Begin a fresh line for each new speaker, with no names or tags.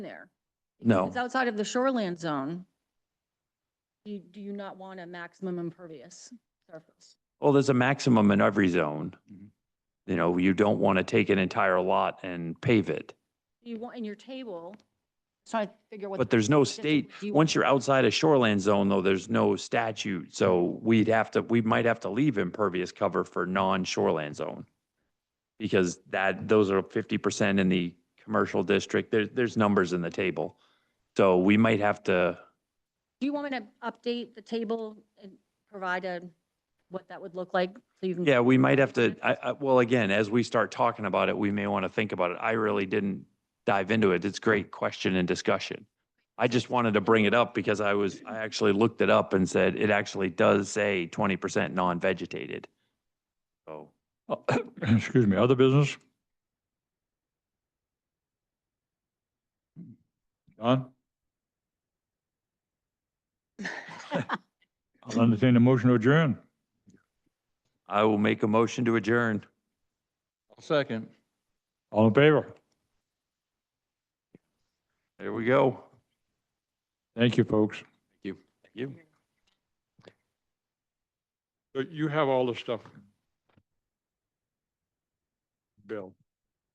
there. If
No,
It's outside of the shoreland zone. You, do you not want a maximum impervious surface?
well, there's a maximum in every zone.
Mhm.
You know, you don't want to take an entire lot and pave it,
You want in your table, just trying to figure what.
but
the
there's no
density
state,
would do.
once you're outside a shoreland zone though, there's no statute. So we'd have to, we might have to leave impervious cover for non-shoreland zone. Because that, those are fifty percent in the commercial district. There, there's numbers in the table. So we might have to,
Do you want me to update the table and provide a, what that would look like? So you can.
yeah, we might have to, I, I, well, again, as we start talking about it, we may want to think about it. I really didn't dive into it. It's great question and discussion. I just wanted to bring it up because I was, I actually looked it up and said, it actually does say twenty percent non-vegetated. So.
Excuse me, other business? Don, I'll entertain a motion to adjourn.
I will make a motion to adjourn.
Second.
All in favor?
There we go.
Thank you, folks.
Thank you.
But You have all the stuff. Bill.